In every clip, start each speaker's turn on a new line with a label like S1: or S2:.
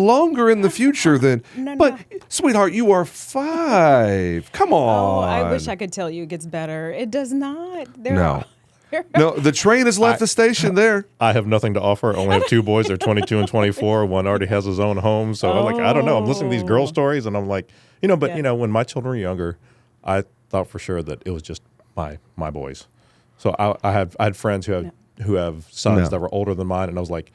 S1: longer in the future than.
S2: No,
S1: but sweetheart, you are five. Come
S2: Oh,
S1: on.
S2: I wish I could tell you it gets better. It does not. There
S1: No.
S2: Are,
S1: No, the train has left the station. There.
S3: I have nothing to offer. I only have two boys. They're 22 and 24. One already has his own home. So I'm like, I don't know. I'm listening to these girl stories and I'm like, you know, but
S2: Yeah.
S3: you know, when my children were younger, I thought for sure that it was just my my boys. So I, I have I had friends who have who have sons
S1: No.
S3: that were older than mine, and I was like,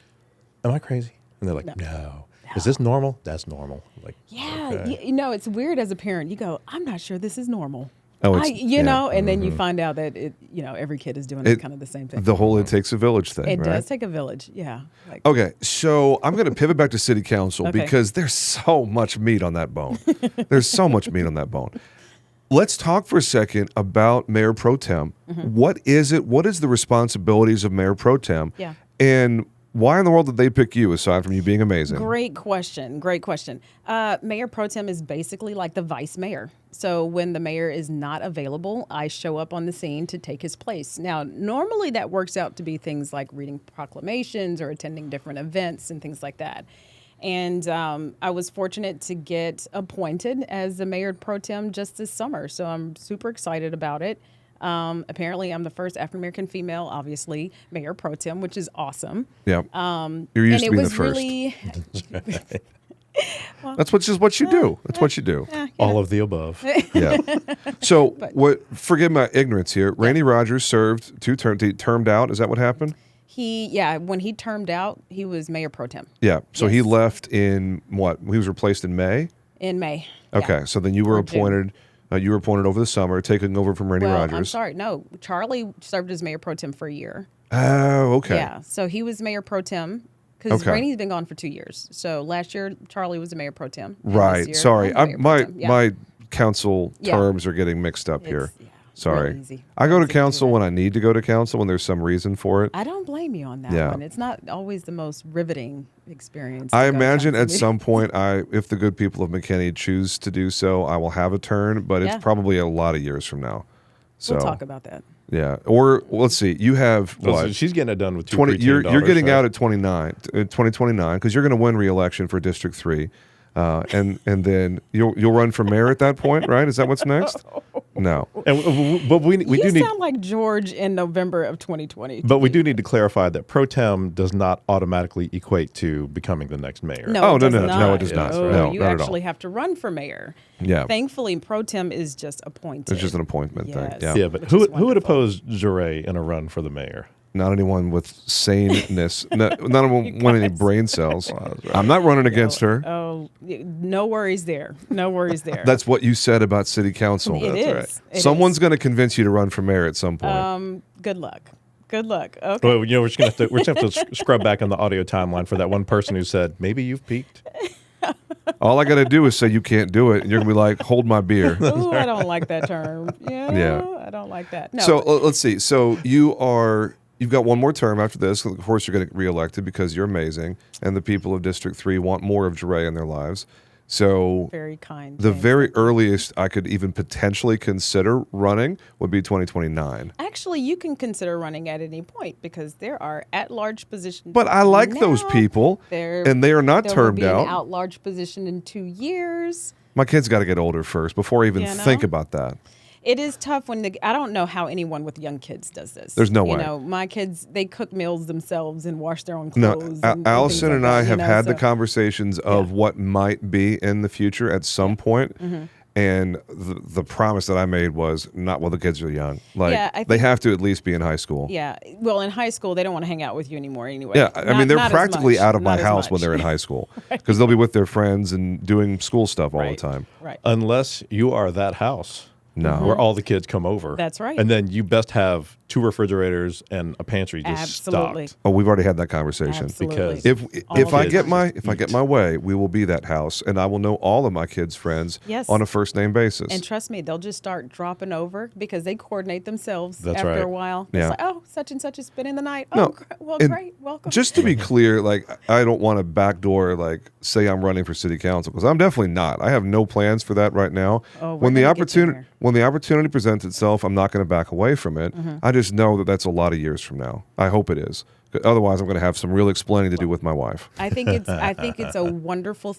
S3: Am I crazy? And they're like, No. Is this normal? That's normal. Like,
S2: yeah,
S3: okay.
S2: you, you know, it's weird as a parent. You go, I'm not sure this is normal.
S1: Oh,
S2: I,
S1: it's-
S2: you
S1: yeah. Mm-hmm.
S2: know, and then you find out that it, you know, every kid is doing
S1: It-
S2: kind of the same thing.
S1: The whole it takes a village thing.
S2: it
S1: right?
S2: does take a village. Yeah. Like,
S1: Okay, so I'm going to pivot back to city council
S2: Okay.
S1: because there's so much meat on that bone. there's so much meat on that bone. Let's talk for a second about Mayor Pro Tem.
S2: Mm-hmm.
S1: What is it? What is the responsibilities of Mayor Pro Tem?
S2: Yeah.
S1: And why in the world did they pick you aside from you being amazing?
S2: Great question. Great question. Uh, mayor pro tem is basically like the vice mayor. So when the mayor is not available, I show up on the scene to take his place. Now, normally that works out to be things like reading proclamations or attending different events and things like that. And um, I was fortunate to get appointed as the mayor pro tem just this summer. So I'm super excited about it. Um, apparently, I'm the first African American female, obviously, mayor pro tem, which is awesome.
S1: Yeah. Um, You're used
S2: and
S1: to being
S2: it was
S1: the first.
S2: really
S1: That's what just what you do. That's what you do.
S3: all of the above.
S1: Yeah. So what? Forgive my ignorance here. Randy Rogers served two term, termed out. Is that what happened?
S2: He, yeah, when he termed out, he was mayor pro tem
S1: Yeah. So he
S2: Yes.
S1: left in what? He was replaced in May.
S2: in May. Yeah.
S1: Okay. So then you were
S2: Or June.
S1: appointed. Uh, you were appointed over the summer, taking over from Randy
S2: Well,
S1: Rogers.
S2: I'm sorry. No, Charlie served as mayor pro tem for a year.
S1: Oh, okay.
S2: Yeah. So he was mayor pro tem because
S1: Okay.
S2: Rainey's been gone for two years. So last year, Charlie was the mayor pro tem. and this
S1: Right.
S2: year,
S1: Sorry.
S2: I'm
S1: I,
S2: mayor pro
S1: my
S2: tem. Yeah.
S1: my council
S2: Yeah.
S1: terms are getting mixed up here.
S2: It's- yeah, it's
S1: Sorry.
S2: real easy.
S1: I go
S2: Real
S1: to
S2: easy to do
S1: council
S2: that.
S1: when I need to go to council when there's some reason for it.
S2: I don't blame you on that
S1: Yeah.
S2: one. It's not always the most riveting experience. to
S1: I
S2: go to
S1: imagine
S2: council
S1: at
S2: meeting.
S1: some point, I if the good people of McKinney choose to do so, I will have a turn, but
S2: Yeah.
S1: it's probably a lot of years from now. So
S2: We'll talk about that.
S1: yeah, or well, let's see, you have
S3: So
S1: what
S3: she's getting it done with two
S1: 20 you're,
S3: preteen
S1: you're getting
S3: daughters,
S1: out
S3: right?
S1: at 29 uh, 2029 because you're going to win re-election for district 3 uh, and and then you'll you'll run for mayor at that point right is that what's next no
S3: And w- w- but we we
S2: you
S3: do need
S2: sound like George in November of 2020.
S3: But we do need to clarify that pro tem does not automatically equate to becoming the next mayor.
S2: No,
S1: Oh,
S2: it
S1: no,
S2: does
S1: no,
S2: not.
S1: no, it does not.
S2: Oh,
S1: No,
S2: you
S1: not at all.
S2: actually have to run for mayor.
S1: Yeah.
S2: Thankfully, pro tem is just appointed.
S1: it's just an appointment
S2: Yes.
S1: thing yeah.
S3: Yeah, but
S2: Which
S3: who
S2: is
S3: who would
S2: wonderful.
S3: oppose Jure in a run for the mayor?
S1: not anyone with saneness no, not anyone want any brain cells i'm not running against her
S2: oh, y- no worries there. No worries there.
S1: that's what you said about city council
S2: It That's is. right. It
S1: someone's
S2: is.
S1: going to convince you to run for mayor at some point
S2: um. Good luck. Good luck. Okay.
S3: Well, you know, we're just gonna have to we're just gonna have to s- scrub back on the audio timeline for that one person who said maybe you've peaked.
S1: all i got to do is say you can't do it and you're going to be like hold my beer
S2: Ooh, I don't like that term. Yeah, I don't like that. No.
S1: So l- let's see. So you are you've got one more term after this. Of course, you're going to get reelected because you're amazing, and the people of District Three want more of Jure in their lives. So
S2: very kind.
S1: the
S2: James.
S1: very earliest I could even potentially consider running would be 2029.
S2: Actually, you can consider running at any point because there are at-large positions.
S1: But I like those
S2: now.
S1: people,
S2: There-
S1: and they are not
S2: there
S1: termed
S2: will be
S1: out.
S2: An out-large position in two years.
S1: My kids got to get older first before I even
S2: You know?
S1: think about that.
S2: It is tough when the I don't know how anyone with young kids does this.
S1: There's no way.
S2: you know, my kids they cook meals themselves and wash their own
S1: No,
S2: clothes.
S1: Al-
S2: and,
S1: Allison
S2: things
S1: and
S2: like
S1: I
S2: that, you
S1: have
S2: know,
S1: had the
S2: so-
S1: conversations of what might be in the future at some point,
S2: Mm-hmm.
S1: And the, the promise that I made was not while the kids are young. Like
S2: Yeah, I
S1: they
S2: think-
S1: have to at least be in high school.
S2: Yeah, well, in high school they don't want to hang out with you anymore anyway.
S1: Yeah, I
S2: Not-
S1: mean they're
S2: not as
S1: practically
S2: much,
S1: out of my
S2: not as
S1: house when
S2: much.
S1: they're in high school because they'll be with their friends and doing school stuff all
S2: Right,
S1: the time.
S2: Right.
S3: Unless you are that house.
S1: No.
S3: Where all the kids come over.
S2: Mm-hmm. That's right.
S3: And then you best have two refrigerators and a pantry just
S2: Absolutely.
S3: stocked.
S1: Oh, we've already had that conversation.
S2: Absolutely.
S3: Because-
S1: If
S2: All
S1: if
S2: the
S1: I
S3: kids
S1: get my
S3: just
S1: if I get
S3: eat.
S1: my way, we will be that house, and I will know all of my kids' friends
S2: Yes.
S1: on a first name basis.
S2: and trust me, they'll just start dropping over because they coordinate themselves
S3: That's
S2: after
S3: right.
S2: a while.
S1: Yeah.
S2: It's like, oh, such and such is spending the night. Oh,
S1: No,
S2: gr- well,
S1: and
S2: great. Welcome.
S1: Just to be clear, like I don't want to backdoor like say I'm running for city council because I'm definitely not. I have no plans for that right now.
S2: Oh, we're
S1: when the
S2: gonna get you
S1: opportunity
S2: there.
S1: when the opportunity
S2: Mm-hmm.
S1: presents itself, I'm not going to back away from it. I just know that that's a lot of years from now. I hope it is Otherwise, I'm going to have some real explaining to do with my wife.
S2: I think it's I think it's a wonderful